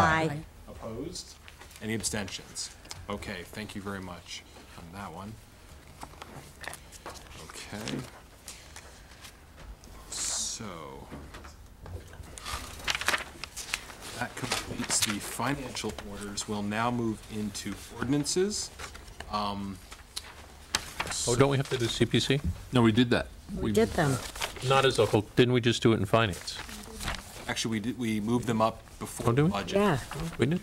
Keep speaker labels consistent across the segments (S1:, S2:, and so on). S1: Aye.
S2: Opposed? Any abstentions? Okay, thank you very much on that one. Okay. So that completes the financial orders. We'll now move into ordinances.
S3: Oh, don't we have to do CPC?
S4: No, we did that.
S1: We did them.
S3: Not as a whole, didn't we just do it in finance?
S2: Actually, we did, we moved them up
S3: Oh,
S2: before
S3: did we?
S2: budget.
S1: Yeah.
S3: We did?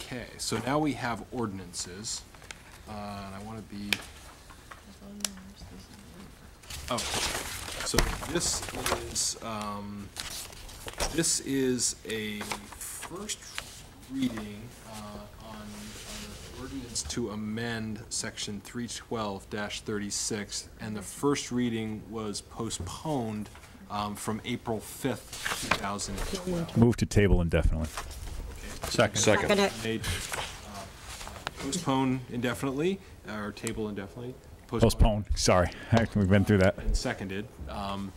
S2: Okay, so now we have ordinances, uh, and I want to be. Oh, so this is, um, this is a first reading uh, on on an ordinance to amend section three twelve thirty-six, and the first reading was postponed um, from April fifth, two thousand and twelve.
S5: Move to table indefinitely.
S4: Second.
S1: Second it.
S2: Made, uh, Postpone indefinitely, or table indefinitely.
S5: Postpone, sorry. We've been through that.
S2: And seconded. Um,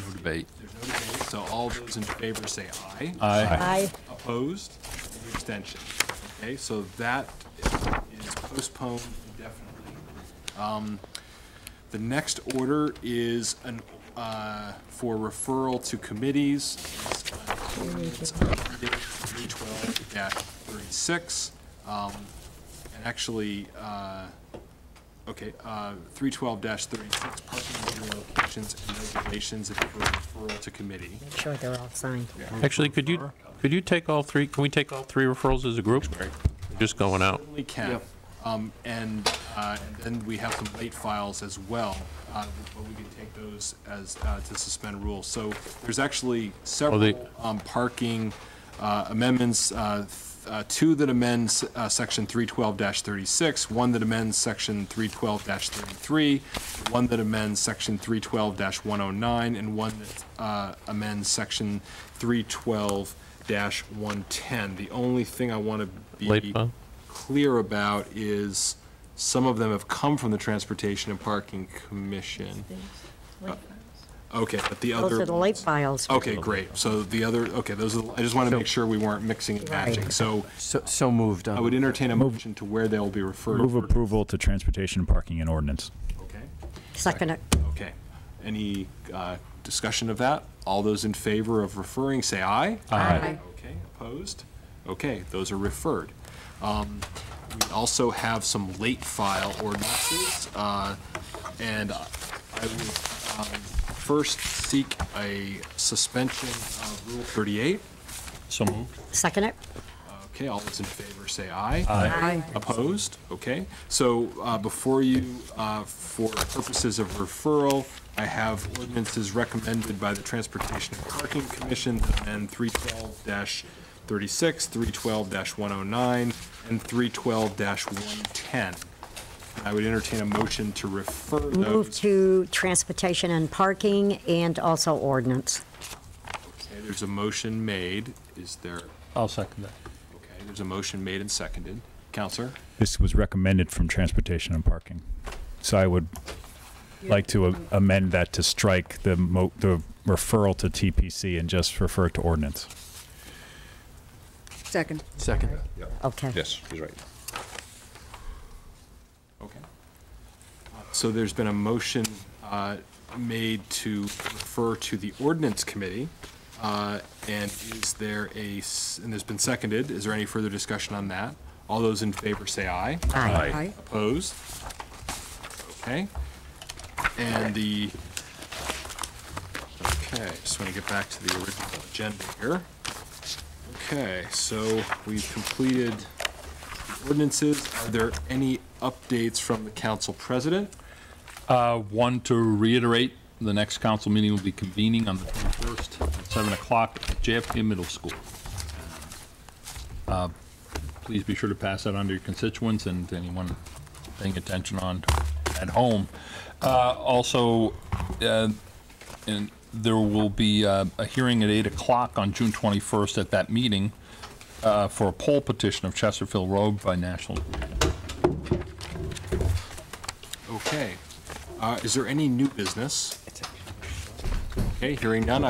S4: No debate.
S2: There's no debate, so all those in favor say aye.
S5: Aye.
S1: Aye.
S2: Opposed? Any Abstention. Okay, so that is postponed indefinitely. Um, The next order is an, uh, for referral to committees. It's uh, Three twelve thirty-six. Um, and actually, uh, okay, uh, three twelve thirty-six, parking meter locations and regulations if for referral to committee.
S1: Make sure they're all signed.
S3: Actually, could you, could you take all three, can we take all three referrals as a group? Just going out.
S2: Certainly can. Um, And uh, and then we have some late files as well, uh, but we can take those as, uh, to suspend rules. So there's actually
S3: they-
S2: several um, parking uh, amendments, uh, th- uh, two that amends uh, Section 312-36, one that amends Section 312-33, one that amends Section 312-109, and one that uh, amends Section 312-110. The only thing I want to be
S3: Late file?
S2: clear about is some of them have come from the Transportation and Parking Commission. Uh, Okay, but the other.
S1: Those are the late files.
S2: Okay, great. So the other, okay, those are, the- I just want to make sure we weren't mixing and matching. So
S6: So, so moved. uh,
S2: I would entertain a motion to where they'll be referred.
S5: Move approval to transportation, parking, and ordinance.
S2: Okay,
S1: Second it.
S2: okay. Any uh, discussion of that? All those in favor of referring, say aye.
S1: Aye.
S2: Okay, opposed? Okay, those are referred. Um, We also have some late file ordinances, uh, and I would um, first seek a suspension of Rule 38.
S3: So moved.
S1: Second it.
S2: Okay, all those in favor say aye.
S1: Aye.
S2: Opposed? Okay. So uh, before you, uh, for purposes of referral, I have ordinances recommended by the Transportation and Parking Commission, and 312-36, 312-109, and 312-110. I would entertain a motion to refer
S1: Move
S2: those.
S1: to transportation and parking and also ordinance.
S2: Okay, There's a motion made. Is there,
S3: I'll second that.
S2: okay, there's a motion made and seconded. Counselor?
S5: This was recommended from transportation and parking. So I would like to a- amend that to strike the mo, the referral to TPC and just refer to ordinance.
S7: Second.
S6: Second.
S1: Okay.
S4: Yes, he's right.
S2: Okay. So there's been a motion uh, made to refer to the ordinance committee, uh, and is there a, s- and it's been seconded, is there any further discussion on that? All those in favor say aye.
S1: Aye.
S7: Aye.
S2: Opposed? Okay. And the, okay, just want to get back to the original agenda here. Okay, so we've completed the ordinances. Are there any updates from the council president?
S4: Uh, One, to reiterate, the next council meeting will be convening on the 21st at 7 o'clock at JFK Middle School. Uh, Please be sure to pass that on to your constituents and to anyone paying attention on at home. Uh, Also, uh, and there will be uh, a hearing at 8 o'clock on June 21st at that meeting uh, for a poll petition of Chesterfield Road by National
S2: Okay. Uh, Is there any new business? Okay, hearing none,